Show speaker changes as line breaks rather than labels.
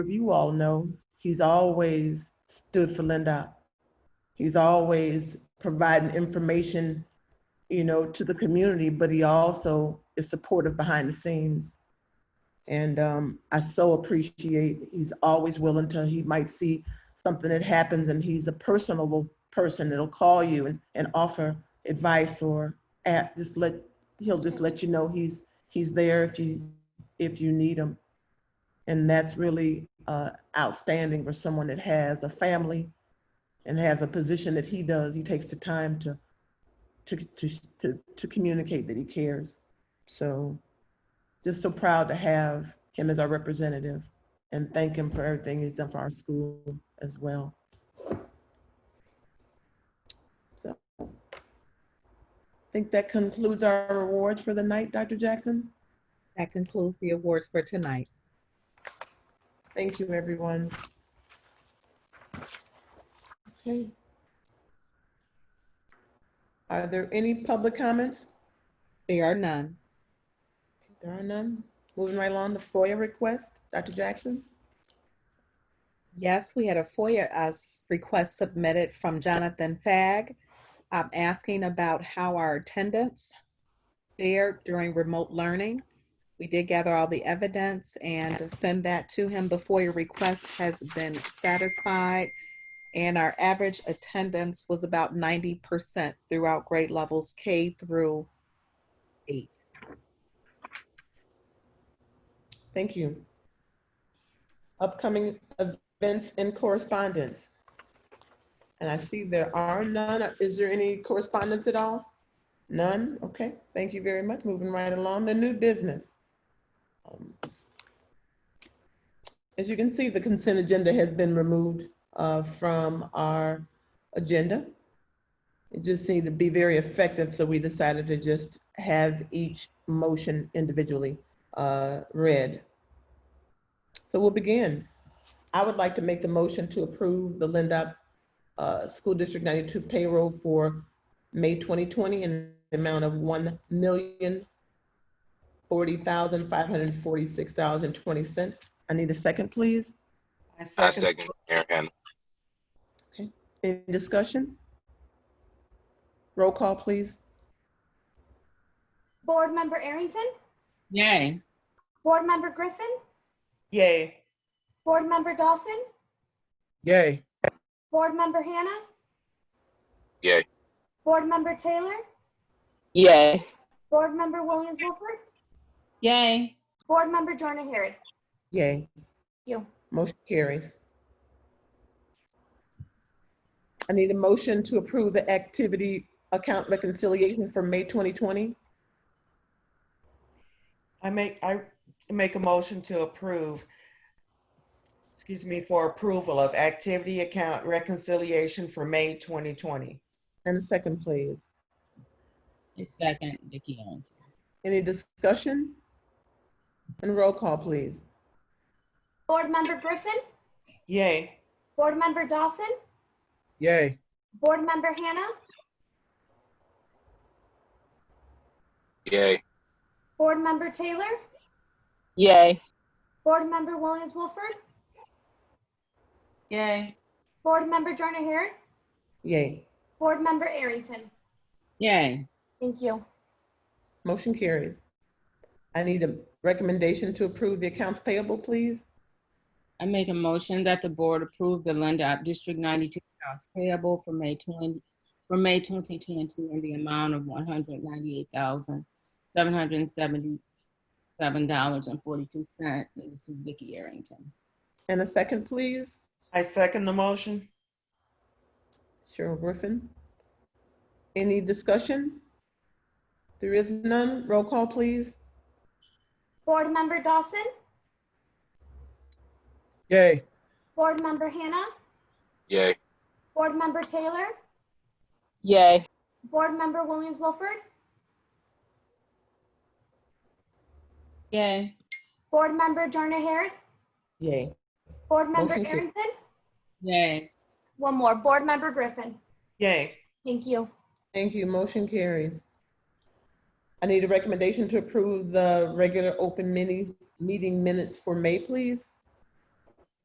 you all know, he's always stood for Linda. He's always providing information, you know, to the community, but he also is supportive behind the scenes. And um, I so appreciate, he's always willing to, he might see something that happens and he's a personable person that'll call you and, and offer advice or at, just let, he'll just let you know he's, he's there if you, if you need him. And that's really uh, outstanding for someone that has a family and has a position that he does. He takes the time to, to, to, to, to communicate that he cares. So just so proud to have him as our representative and thank him for everything he's done for our school as well. So I think that concludes our awards for the night, Dr. Jackson.
That concludes the awards for tonight.
Thank you, everyone. Okay. Are there any public comments?
There are none.
There are none. Moving right along to FOIA request, Dr. Jackson?
Yes, we had a FOIA uh, s- request submitted from Jonathan Fag um, asking about how our attendance fared during remote learning. We did gather all the evidence and send that to him. The FOIA request has been satisfied, and our average attendance was about 90% throughout grade levels K through 8.
Thank you. Upcoming events and correspondence. And I see there are none. Is there any correspondence at all? None? Okay, thank you very much. Moving right along to new business. Um, As you can see, the consent agenda has been removed uh, from our agenda. It just seemed to be very effective, so we decided to just have each motion individually uh, read. So we'll begin. I would like to make the motion to approve the Lindup uh, School District 92 payroll for May 2020 in the amount of $1,040,546.20. I need a second, please.
I
I
second.
second Mayor Hannah.
Any discussion? Roll call, please.
Board Member Arrington,
Yay.
Board Member Griffin,
Yay.
Board Member Dawson,
Yay.
Board Member Hannah.
Yay.
Board Member Taylor,
Yay.
Board Member Williams Wilford,
Yay.
Board Member Jordan Harret.
Yay.
You.
Motion carries. I need a motion to approve the activity account reconciliation for May 2020.
I make, I make a motion to approve, excuse me, for approval of activity account reconciliation for May 2020.
And a second, please.
A second, Vicky Errington.
Any discussion? And roll call, please.
Board Member Griffin,
Yay.
Board Member Dawson,
Yay.
Board Member Hannah,
Yay.
Board Member Taylor,
Yay.
Board Member Williams Wilford,
Yay.
Board Member Jordan Harret,
Yay.
Board Member Arrington.
Yay.
Thank you.
Motion carries. I need a recommendation to approve the accounts payable, please.
I make a motion that the board approve the Lindup District 92 accounts payable for May 20, for May 2020 in the amount of $198,777.42. And This is Vicky Arrington.
And a second, please.
I second the motion.
Cheryl Griffin. Any discussion? There is none. Roll call, please.
Board Member Dawson,
Yay.
Board Member Hannah,
Yay.
Board Member Taylor,
Yay.
Board Member Williams Wilford,
Yay.
Board Member Jordan Harret,
Yay.
Board Member
Motion to-
Arrington,
Yay.
One more, Board Member Griffin.
Yay.
Thank you.
Thank you. Motion carries. I need a recommendation to approve the regular open mini meeting minutes for May, please.